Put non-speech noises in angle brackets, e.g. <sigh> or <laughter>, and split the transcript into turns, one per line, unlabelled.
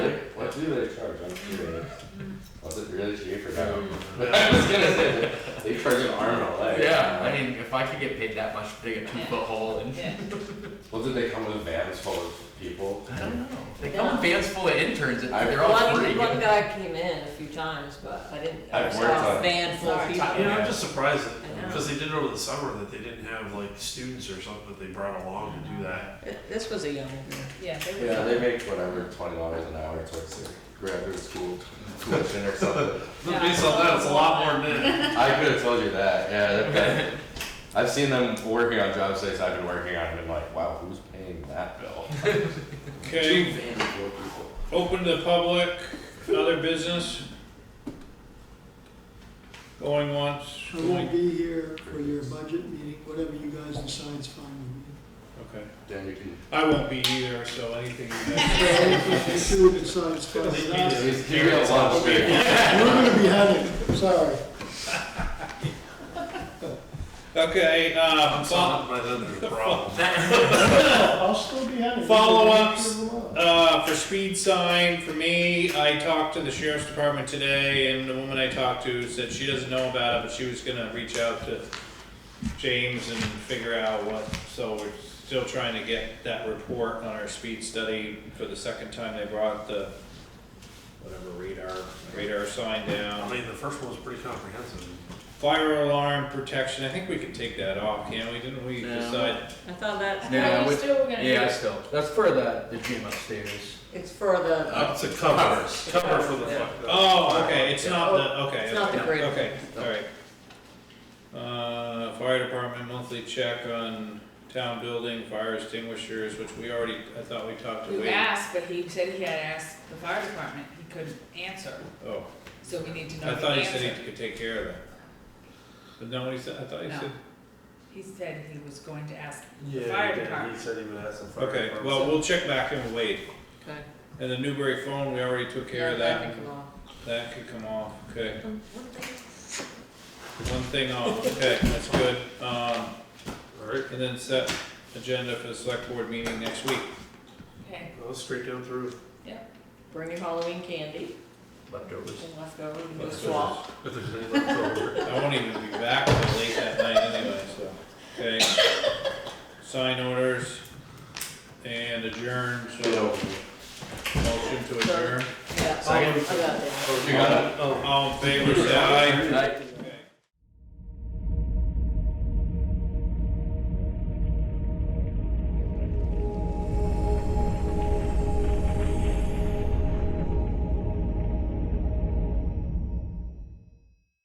much do they charge on two days? Was it really cheap or no? But <laughs> I was gonna say, they charge an arm and a leg.
Yeah, I mean, if I could get paid that much to dig a two
Yeah.
foot hole and.
Yeah.
Well, did they come with vans full of people?
I don't know. They come in vans full of interns and
I-
they're all free.
One, one guy came in a few times, but I didn't, I
I've
saw
worked on-
a van full of
Sorry.
people.
You know, I'm just surprised that,
I know.
because they did it over the summer, that they didn't have like students or something that they brought along to do that.
Th- This was a young girl.
Yeah, they would.
Yeah, they make whatever, twenty dollars an hour towards their graduate school tuition or something.
Yeah.
Based on that, it's a lot more than
<laughs>
that.
I could have told you that, yeah. that- that- I've seen them working on job sites I've been working on and been like, wow, who's paying that bill? Two
Okay,
vans full of people.
open to public, other business. Going once,
I won't be here for your budget meeting, whatever you guys decide is fine
okay.
Then you can.
I won't be either, so anything you guys.
with me. If you two decide it's fine with us,
It's here at lunch, dude.
we're gonna be having, sorry.
Okay, uh, fo-
Solved my other problem.
I'll still be having.
Follow-ups.
Follow-ups.
uh, for speed sign, for me, I talked to the sheriff's department today, and the woman I talked to said she doesn't know about it, but she was gonna reach out to James and figure out what, so we're still trying to get that report on our speed study for the second time they brought the, whatever radar, radar sign down.
I mean, the first one was pretty comprehensive.
Fire alarm protection, I think we can take that off, can we? Didn't we
No.
decide?
I thought that,
Yeah,
Yeah, we
with-
still were gonna.
Yeah, still. That's for the, the gym upstairs.
it's for the,
That's a cover, cover for the fuck.
Oh, okay, it's not the, okay.
it's not the
okay,
grid.
Okay, alright. Uh, fire department monthly check on town building, fire extinguishers, which we already, I thought Uh, we talked to
We
Wade.
asked, but he said he had asked the fire department, he couldn't answer,
Oh,
so we need to know
I
the
thought he said
answer.
he could take care of that. But no, he said, I thought he
No.
said,
He said he was going to ask the
Yeah,
fire
he did. he
department.
said he would ask some fire.
okay,
department.
well, we'll check back in with Wade.
okay.
And the Newbury phone, we already took care of that.
can come off.
That could come off, okay. One thing off, okay, that's good. Um,
All right,
and then set agenda for the select board meeting next week.
Okay,
well, straight down through.
Bring your Halloween candy
Leftovers.
and leftover, you can do a
Leftovers.
swap.
If there's any left over.
I won't even be back till late that night anyway, so, okay. Sign orders and adjourn, so motion to adjourn.
Yeah, oh, I
Second.
got that.
Oh, you got it?
All in favor, say aye.
Right.